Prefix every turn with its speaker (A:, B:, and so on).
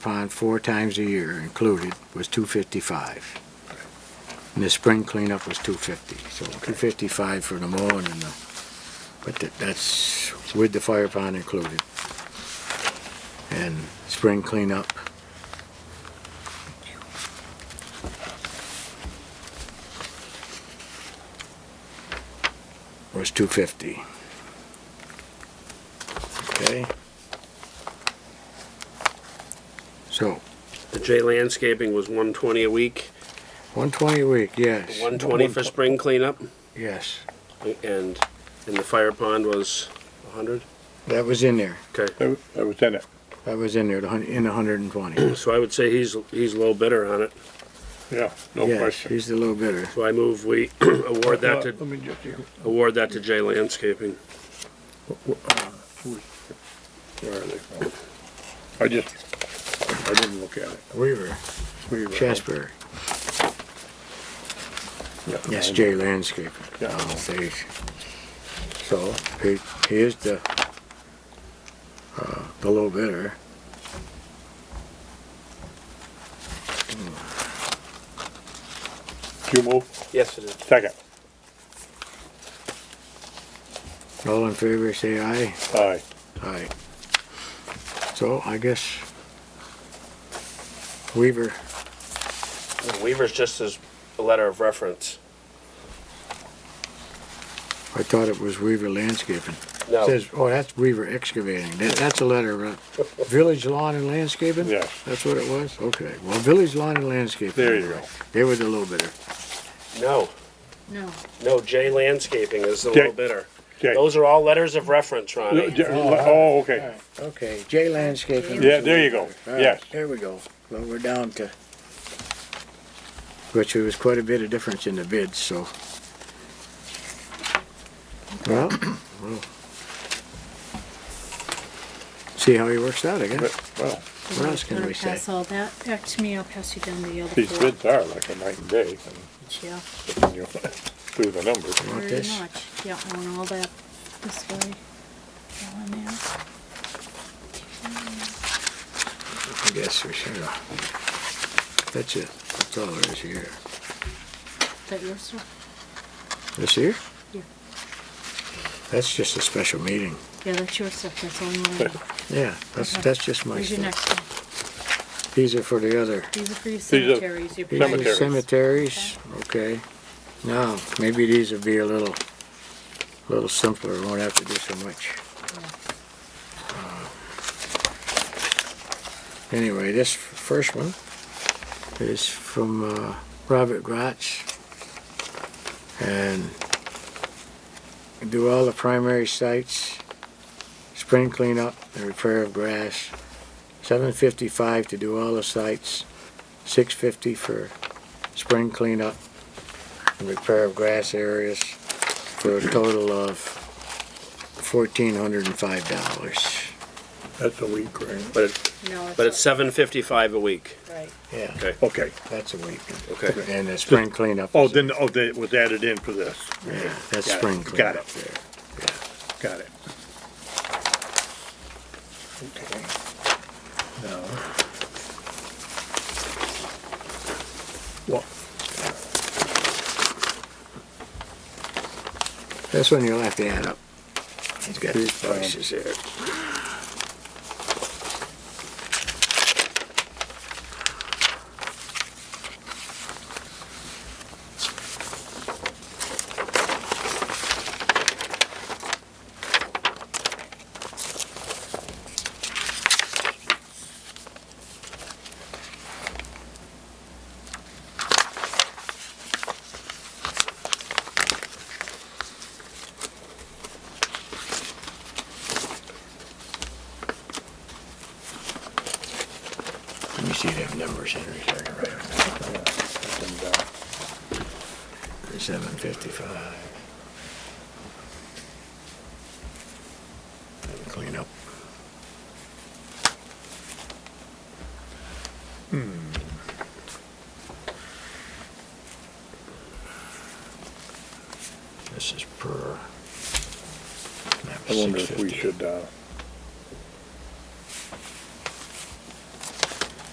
A: pond four times a year included was two fifty-five. And the spring cleanup was two fifty, so two fifty-five for the mowing and the, but that- that's with the fire pond included. And spring cleanup. Was two fifty. Okay? So,
B: The J landscaping was one twenty a week,
A: one twenty a week, yes.
B: one twenty for spring cleanup,
A: Yes,
B: and, and the fire pond was a hundred?
A: that was in there.
B: Okay,
C: That was, that was in it.
A: That was in there, the hun- in a hundred and twenty.
B: so I would say he's, he's low bidder on it,
C: Yeah, no
A: Yes,
C: question.
A: he's a little bitter.
B: so I move we award that
C: Let
B: to,
C: me just, see.
B: award that to J landscaping.
C: where are they from? I just, I didn't look at it.
A: Weaver,
C: We were-
A: Chasper,
C: Yeah.
A: yes, Jay Landscaping.
C: Yeah.
A: Oh, they- So, he, he is the, uh, the low bidder.
C: You move,
B: Yes, it is.
C: second.
A: All in favor, say aye.
C: Aye.
A: Aye. So, I guess Weaver,
B: Weaver's just as a letter of reference.
A: I thought it was Weaver Landscaping.
B: No,
A: Says, oh, that's Weaver Excavating. That, that's a letter, uh, Village Lawn and Landscaping?
C: Yes.
A: That's what it was? Okay. Well, Village Lawn and Landscaping.
C: There you go.
A: They were the little bidder.
B: no,
D: No.
B: no, J landscaping is the
C: J-
B: low bidder.
C: J.
B: Those are all letters of reference,
C: L-
B: Ronnie.
C: j- Oh, okay.
A: Okay, J Landscaping.
C: Yeah, there you go.
A: All right,
C: Yes.
A: There we go. Well, we're down to, which there was quite a bit of difference in the bids, so. Well, well. See how he works out, I guess.
C: But, Well,
A: What else can we say?
D: Pass all that back to me, I'll pass you down the other
C: these
D: four.
C: bids are like a night and day,
D: Yeah,
C: and you do the numbers.
A: Want
D: very
A: this?
D: much. Yeah, I want all that this way. All in there.
A: I guess we should have. That's it. That's all there is here.
D: Is that yours, sir?
A: This here?
D: Yeah.
A: That's just a special meeting.
D: Yeah, that's your stuff, that's all mine.
A: Yeah, that's,
D: Okay.
A: that's just my
D: Here's your
A: stuff.
D: next one.
A: These are for the other.
D: These are for your
C: are
D: cemeteries, your.
A: These are
C: Cemeteries.
A: Cemeteries, okay. Now, maybe these would be a little, little simpler, won't have to do so much. Anyway, this first one is from uh, Robert Gratz. And do all the primary sites, spring cleanup and repair of grass, seven fifty-five to do all the sites, six fifty for spring cleanup and repair of grass areas for a total of fourteen hundred and five dollars.
C: That's a week, right?
B: But, it-
D: No,
B: but it's
D: it's,
B: seven fifty-five a week.
D: right.
A: Yeah,
C: Okay.
A: that's a week.
B: Okay.
A: And the spring cleanup.
C: Oh,
A: is-
C: then, oh, that was added in for this.
A: Yeah, that's
C: Got it,
A: spring
C: got
A: cleanup there.
C: Got it. Okay. Now. What?
A: This one you'll have to add up. He's got these boxes there. Let me see them numbers, Henry, so I can write them down.
C: uh,
A: Seven fifty-five. Clean up. This is per. map
C: I wonder if we
A: 650.
C: should, uh,